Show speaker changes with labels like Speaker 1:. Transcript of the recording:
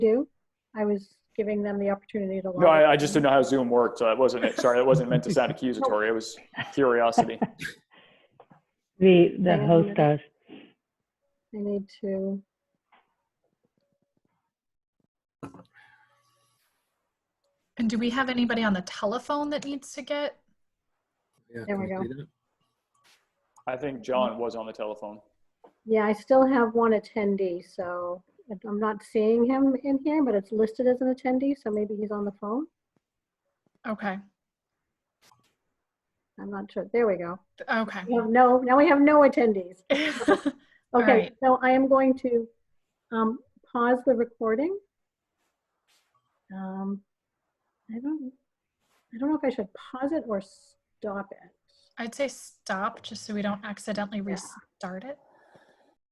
Speaker 1: do. I was giving them the opportunity to. log
Speaker 2: No, I, I
Speaker 1: in.
Speaker 2: just didn't know how Zoom worked, so that wasn't it. Sorry, that wasn't meant to sound accusatory. It was curiosity.
Speaker 3: The, the
Speaker 1: Yeah,
Speaker 3: host
Speaker 1: yeah.
Speaker 3: does.
Speaker 1: I need to.
Speaker 4: And do we have anybody on the telephone that needs to get?
Speaker 5: Yeah,
Speaker 1: There we
Speaker 5: can
Speaker 1: go.
Speaker 5: do that?
Speaker 2: I think John was on the telephone.
Speaker 1: Yeah, I still have one attendee, so I'm not seeing him in here, but it's listed as an attendee, so maybe he's on the phone.
Speaker 4: Okay,
Speaker 1: I'm not sure. There we go.
Speaker 4: okay.
Speaker 1: We have No, now we have no attendees.
Speaker 4: All
Speaker 1: Okay,
Speaker 4: right.
Speaker 1: so I am going to um, pause the recording. Um, I don't, I don't know if I should pause it or stop it.
Speaker 4: I'd say stop just so we don't accidentally restart it.